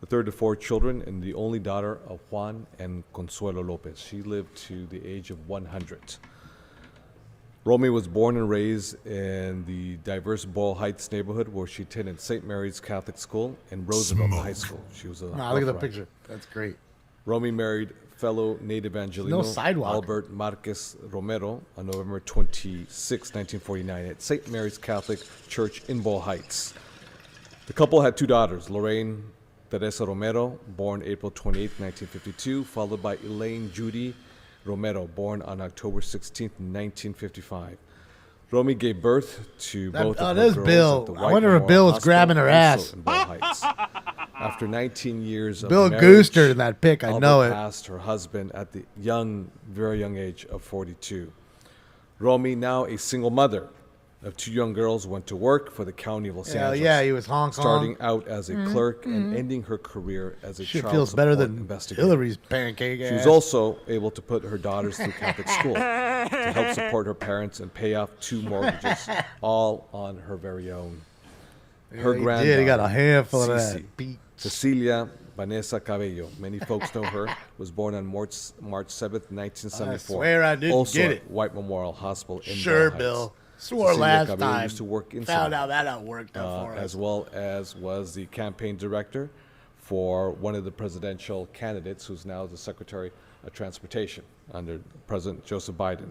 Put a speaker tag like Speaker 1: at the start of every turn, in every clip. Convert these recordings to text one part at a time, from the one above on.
Speaker 1: the third of four children, and the only daughter of Juan and Consuelo Lopez. She lived to the age of 100. Romy was born and raised in the diverse Boyle Heights neighborhood where she attended St. Mary's Catholic School and Roosevelt High School. She was a
Speaker 2: Wow, look at the
Speaker 1: Rough Rider.
Speaker 2: picture. That's great.
Speaker 1: Romy married fellow native Angelino
Speaker 2: No sidewalk.
Speaker 1: Albert Marquez Romero on November 26, 1949, at St. Mary's Catholic Church in Boyle Heights. The couple had two daughters, Lorraine Teresa Romero, born April 28, 1952, followed by Elaine Judy Romero, born on October 16, 1955. Romy gave birth to
Speaker 2: That-
Speaker 1: both
Speaker 2: oh,
Speaker 1: of her
Speaker 2: there's
Speaker 1: girls
Speaker 2: Bill.
Speaker 1: at the
Speaker 2: I
Speaker 1: White
Speaker 2: wonder if
Speaker 1: Memorial
Speaker 2: Bill was
Speaker 1: Hospital,
Speaker 2: grabbing her
Speaker 1: also
Speaker 2: ass.
Speaker 1: in Boyle Heights. After 19 years of
Speaker 2: Bill
Speaker 1: marriage,
Speaker 2: Gooster in that pic, I
Speaker 1: Alba
Speaker 2: know it.
Speaker 1: Passed her husband at the young, very young age of 42. Romy, now a single mother of two young girls, went to work for the county of Los
Speaker 2: Hell
Speaker 1: Angeles.
Speaker 2: yeah, he was Hong
Speaker 1: starting
Speaker 2: Kong.
Speaker 1: out as a clerk and ending her career as a
Speaker 2: Shit
Speaker 1: child
Speaker 2: feels better
Speaker 1: support
Speaker 2: than
Speaker 1: investigator.
Speaker 2: Hillary's pancake
Speaker 1: She was
Speaker 2: ass.
Speaker 1: also able to put her daughters through Catholic school to help support her parents and pay off two mortgages, all on her very own. Her
Speaker 2: He
Speaker 1: granddaughter,
Speaker 2: did. He got a handful of
Speaker 1: Cece,
Speaker 2: that. Beat.
Speaker 1: Cecilia Vanessa Cabello, many folks know her, was born on March, March 7th, 1974.
Speaker 2: swear I didn't
Speaker 1: also
Speaker 2: get
Speaker 1: at
Speaker 2: it.
Speaker 1: White Memorial Hospital in Bell
Speaker 2: Sure,
Speaker 1: Heights.
Speaker 2: Bill. Swore
Speaker 1: Cecilia
Speaker 2: last
Speaker 1: Cabello
Speaker 2: time.
Speaker 1: used to work in
Speaker 2: Found
Speaker 1: Sonoma
Speaker 2: out that out worked out
Speaker 1: uh,
Speaker 2: for us.
Speaker 1: as well as was the campaign director for one of the presidential candidates, who's now the Secretary of Transportation under President Joseph Biden.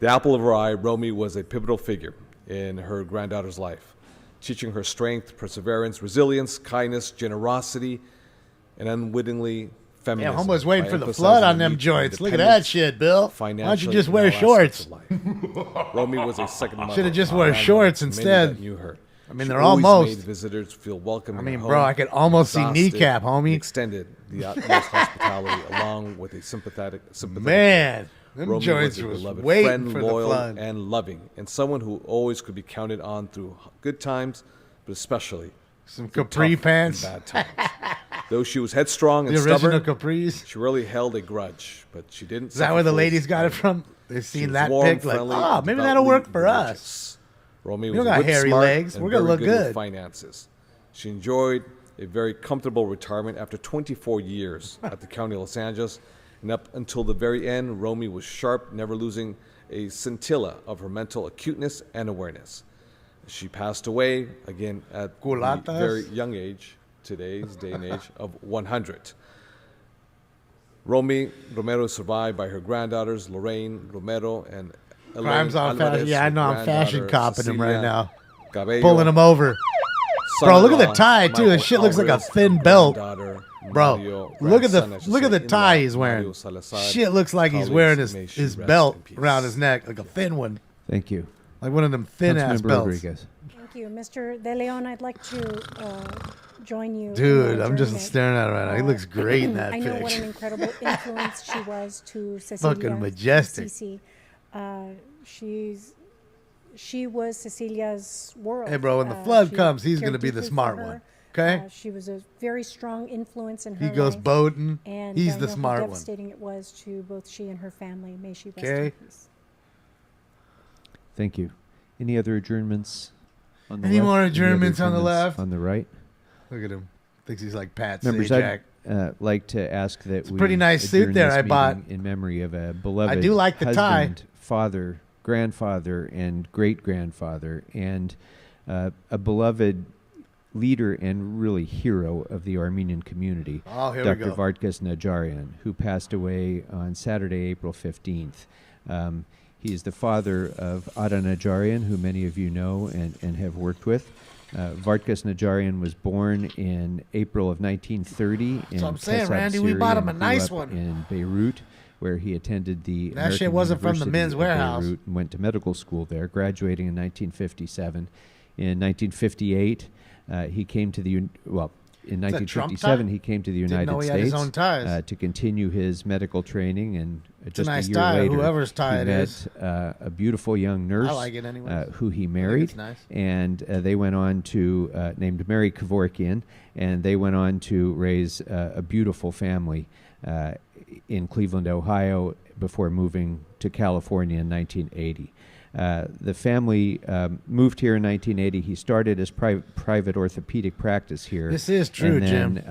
Speaker 1: The apple of her eye, Romy was a pivotal figure in her granddaughter's life, teaching her strength, perseverance, resilience, kindness, generosity, and unwittingly
Speaker 2: Yeah,
Speaker 1: feminism.
Speaker 2: homeboy's waiting
Speaker 1: by
Speaker 2: for the
Speaker 1: emphasizing
Speaker 2: flood on
Speaker 1: the
Speaker 2: them
Speaker 1: need for
Speaker 2: joints. Look at that
Speaker 1: independence,
Speaker 2: shit, Bill. Why don't you
Speaker 1: financially
Speaker 2: just
Speaker 1: and
Speaker 2: wear
Speaker 1: all aspects
Speaker 2: shorts?
Speaker 1: of life. Romy was a second mother.
Speaker 2: Should've just
Speaker 1: to
Speaker 2: wore
Speaker 1: Armando,
Speaker 2: shorts
Speaker 1: many that
Speaker 2: instead.
Speaker 1: knew her.
Speaker 2: I mean,
Speaker 1: She
Speaker 2: they're
Speaker 1: always
Speaker 2: almost-
Speaker 1: made visitors feel welcome. in
Speaker 2: I mean,
Speaker 1: her
Speaker 2: bro,
Speaker 1: home.
Speaker 2: I could almost see
Speaker 1: Exhausted,
Speaker 2: kneecap, homie.
Speaker 1: he Extended the utmost hospitality along with a sympathetic, sympathetic
Speaker 2: Man, them
Speaker 1: Romy
Speaker 2: joints
Speaker 1: was a
Speaker 2: was
Speaker 1: beloved
Speaker 2: waiting
Speaker 1: friend,
Speaker 2: for
Speaker 1: loyal
Speaker 2: the flood.
Speaker 1: and loving, and someone who always could be counted on through h- good times, but especially
Speaker 2: Some
Speaker 1: through
Speaker 2: capri
Speaker 1: tough
Speaker 2: pants.
Speaker 1: and bad times. Though she was headstrong and
Speaker 2: the original
Speaker 1: stubborn,
Speaker 2: capris.
Speaker 1: she really held a grudge, but she didn't.
Speaker 2: Is that where the ladies got it from? They've seen that pic, like, oh, maybe that'll work for us.
Speaker 1: Romy
Speaker 2: We
Speaker 1: was
Speaker 2: don't got
Speaker 1: whip
Speaker 2: hairy
Speaker 1: smart
Speaker 2: legs.
Speaker 1: and
Speaker 2: We're gonna
Speaker 1: very
Speaker 2: look
Speaker 1: with
Speaker 2: good.
Speaker 1: finances. She enjoyed a very comfortable retirement after 24 years at the County of Los Angeles, and up until the very end, Romy was sharp, never losing a scintilla of her mental acuteness and awareness. She passed away again at
Speaker 2: Culatas.
Speaker 1: the very young age, today's day and age of 100. Romy Romero is survived by her granddaughters Lorraine Romero and Elaine
Speaker 2: Crimes on fashion-
Speaker 1: Alvarez,
Speaker 2: yeah, I
Speaker 1: her
Speaker 2: know, I'm fashion
Speaker 1: granddaughter,
Speaker 2: copping him right
Speaker 1: Cecilia
Speaker 2: now.
Speaker 1: Cabello,
Speaker 2: Pulling them over. Bro, look at
Speaker 1: son-in-law,
Speaker 2: the tie, too. That
Speaker 1: Michael
Speaker 2: shit looks like a
Speaker 1: Alvarez,
Speaker 2: thin belt.
Speaker 1: granddaughter,
Speaker 2: Bro,
Speaker 1: Mario,
Speaker 2: look at the
Speaker 1: grandson, I should
Speaker 2: look at
Speaker 1: say,
Speaker 2: the tie
Speaker 1: in-law,
Speaker 2: he's wearing.
Speaker 1: Mario Salazar.
Speaker 2: Shit looks like he's
Speaker 1: Colleagues,
Speaker 2: wearing his,
Speaker 1: may she
Speaker 2: his
Speaker 1: rest
Speaker 2: belt
Speaker 1: in peace.
Speaker 2: around his neck, like a thin one,
Speaker 3: Thank you.
Speaker 2: like one of them thin ass
Speaker 3: Councilmember
Speaker 2: belts.
Speaker 3: Rodriguez.
Speaker 4: Thank you, Mr. De Leon. I'd like to uh, join you. in
Speaker 2: Dude,
Speaker 4: your
Speaker 2: I'm just
Speaker 4: journey.
Speaker 2: staring at it right now. He
Speaker 4: Uh,
Speaker 2: looks great in that
Speaker 4: I know what an
Speaker 2: picture.
Speaker 4: incredible influence she was to Cecilia.
Speaker 2: Fucking majestic.
Speaker 4: Cece. Uh, she's she was Cecilia's world.
Speaker 2: Hey, bro, when the
Speaker 4: Uh,
Speaker 2: flood
Speaker 4: she
Speaker 2: comes, he's gonna
Speaker 4: cared
Speaker 2: be the
Speaker 4: deeply
Speaker 2: smart
Speaker 4: for her.
Speaker 2: one, 'kay?
Speaker 4: Uh, she was a very strong influence in her.
Speaker 2: He goes
Speaker 4: life,
Speaker 2: boating.
Speaker 4: And
Speaker 2: He's
Speaker 4: I
Speaker 2: the
Speaker 4: know
Speaker 2: smart
Speaker 4: how
Speaker 2: one.
Speaker 4: devastating it was to both she and her family. May she rest
Speaker 2: 'Kay?
Speaker 4: in peace.
Speaker 3: Thank you. Any other adjournments? On
Speaker 2: Any
Speaker 3: left?
Speaker 2: more
Speaker 3: other
Speaker 2: adjournments on the left?
Speaker 3: On the right.
Speaker 2: Look at him. Thinks he's like Pat
Speaker 3: Members,
Speaker 2: Sajak.
Speaker 3: I'd uh, like to ask that it's
Speaker 2: a
Speaker 3: we
Speaker 2: pretty nice suit
Speaker 3: adjourn
Speaker 2: there
Speaker 3: this
Speaker 2: I bought.
Speaker 3: meeting in memory of a beloved.
Speaker 2: do like the tie.
Speaker 3: husband, Father, grandfather, and great grandfather, and uh, a beloved leader and really hero of the Armenian community,
Speaker 2: Oh, here we
Speaker 3: Dr.
Speaker 2: go.
Speaker 3: Vartkas Najarian, who passed away on Saturday, April 15th. Um, he is the father of Ada Najarian, who many of you know and, and have worked with. Uh, Vartkas Najarian was born in April of 1930 in
Speaker 2: what I'm saying,
Speaker 3: Kasab,
Speaker 2: Randy, we
Speaker 3: Syria,
Speaker 2: bought him a
Speaker 3: and grew
Speaker 2: nice
Speaker 3: up
Speaker 2: one.
Speaker 3: in Beirut, where he attended the
Speaker 2: That shit
Speaker 3: American
Speaker 2: wasn't from the
Speaker 3: University
Speaker 2: men's
Speaker 3: of
Speaker 2: warehouse.
Speaker 3: Beirut and went to medical school there, graduating in 1957. In 1958, uh, he came to the un- well. In
Speaker 2: that Trump
Speaker 3: 1957,
Speaker 2: tie?
Speaker 3: he came to the
Speaker 2: Didn't
Speaker 3: United
Speaker 2: know he had his
Speaker 3: States
Speaker 2: own ties.
Speaker 3: Uh, to continue his medical training, and uh, just
Speaker 2: nice
Speaker 3: a year
Speaker 2: tie,
Speaker 3: later,
Speaker 2: whoever's tie
Speaker 3: he
Speaker 2: it
Speaker 3: met
Speaker 2: is.
Speaker 3: Uh, a beautiful young nurse,
Speaker 2: like it anyways.
Speaker 3: uh, who he married,
Speaker 2: it's nice.
Speaker 3: and uh, they went on to uh, named Mary Kevorkian, and they went on to raise uh, a beautiful family uh, in Cleveland, Ohio, before moving to California in 1980. Uh, the family um, moved here in 1980. He started his pri- private orthopedic practice here.
Speaker 2: This is true,
Speaker 3: and then, uh,
Speaker 2: Jim.